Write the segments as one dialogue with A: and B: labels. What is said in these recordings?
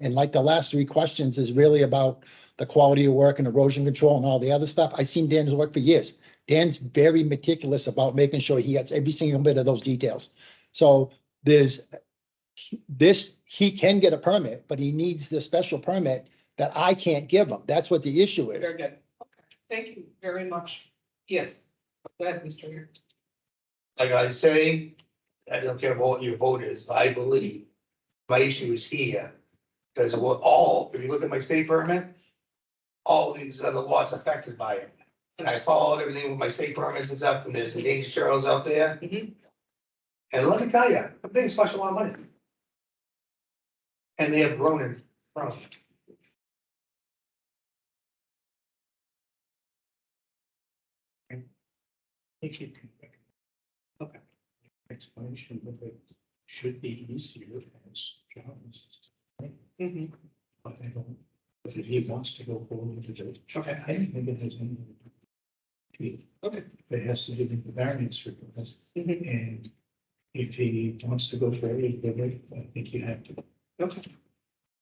A: And like the last three questions is really about the quality of work and erosion control and all the other stuff. I've seen Dan's work for years. Dan's very meticulous about making sure he gets every single bit of those details. So there's this, he can get a permit, but he needs the special permit that I can't give him. That's what the issue is.
B: Very good. Okay. Thank you very much. Yes. Go ahead, Mr. Mayor.
C: like I say, I don't care what your vote is, but I believe my issue is here. Because we're all, if you look at my state permit, all these other lots affected by it. And I followed everything with my state permits and stuff, and there's endangered turtles out there.
B: Mhm.
C: And let me tell you, the thing's cost a lot of money. And they have grown in, grown.
D: Make it complex. Okay. Explanation of it should be easier as John's.
B: Mhm.
D: But I don't, if he wants to go forward to do.
B: Okay.
D: I don't think that there's any.
B: Okay.
D: It has to do with the variance request,
E: Mm-hmm.
B: Mhm.
D: and if he wants to go for everything, I think you have to.
B: Okay.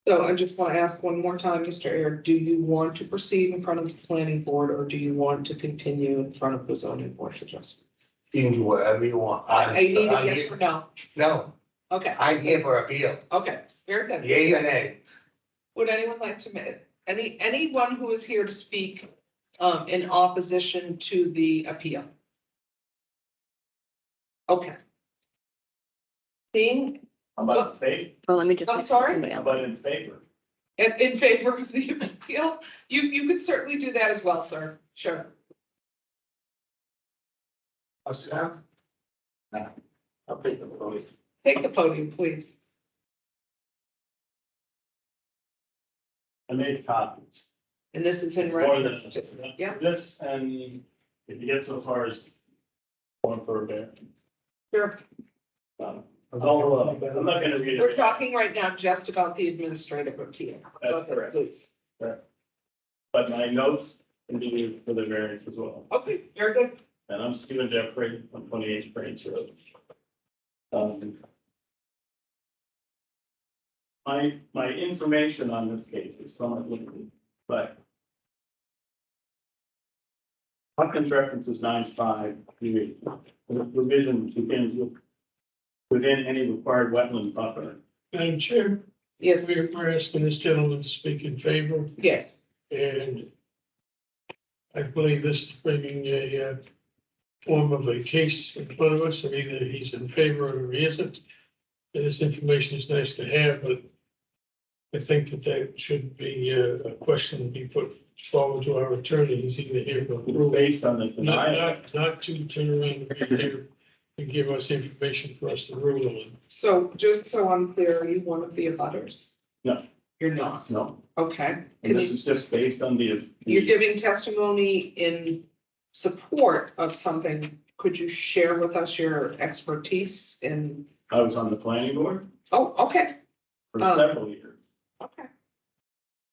B: So I just want to ask one more time, Mr. Air, do you want to proceed in front of the planning board or do you want to continue in front of the zoning board of adjustment?
C: You do whatever you want. I'm-
B: I need a
C: I'm
B: yes
C: here-
B: or no.
C: No,
B: Okay.
C: I'm here for appeal,
B: Okay, very good.
C: yay or nay.
B: Would anyone like to, ma- any, anyone who is here to speak um, in opposition to the appeal? Okay. Seeing,
E: How about in favor?
F: Well, let me just.
B: I'm sorry?
F: Somebody
E: How
F: else.
E: about in favor?
B: in, in favor of the appeal, you, you could certainly do that as well, sir. Sure.
C: I'll sit down.
E: I'll take the vote.
B: Take the podium, please.
E: I made copies.
B: And this is in
E: More than,
B: reference to, yeah.
E: this and if you get so far as one for a bear.
B: Sure.
E: Um, I'll, uh, I'm not gonna read it.
B: we're talking right now just about the administrative appeal.
E: That's correct.
B: Please.
E: But my notes continue for the variance as well.
B: Okay, very good.
E: And I'm Stephen Jeffrey, I'm twenty-eight Branch Road. Um, My, my information on this case is somewhat limited, but Hopkins references nine five, the provision begins with within any required wetland buffer.
G: Madam Chair,
B: Yes,
G: we're, we're asking this gentleman to speak in favor,
B: yes.
G: and I believe this is bringing a uh, form of a case in front of us, and either he's in favor or he isn't. And this information is nice to have, but I think that that should be uh, a question to be put forward to our attorney, he's either here or
E: Based on the
G: not,
E: denial,
G: not, not to turn around and be here and give us information for us to rule on.
B: So just so I'm clear, are you one of the abutters?
E: No.
B: You're not,
E: no,
B: okay.
E: and this is just based on the.
B: You're giving testimony in support of something. Could you share with us your expertise in,
E: I was on the planning board
B: oh, okay,
E: for
B: Oh.
E: several years.
B: okay.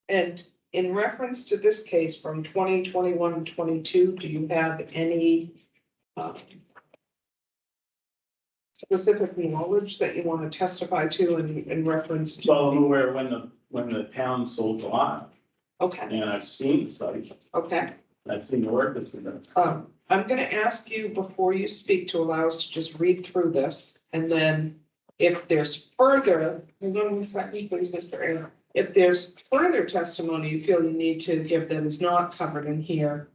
B: And in reference to this case from 2021 to 22, do you have any um, specific knowledge that you want to testify to in, in reference to?
E: Well, I'm aware when the, when the town sold the lot,
B: Okay,
E: and I've seen the site,
B: okay.
E: and I've seen the work that's been done.
B: Um, I'm gonna ask you before you speak to allow us to just read through this and then if there's further, hold on one second, please, Mr. Ayler. If there's further testimony you feel you need to give that is not covered in here,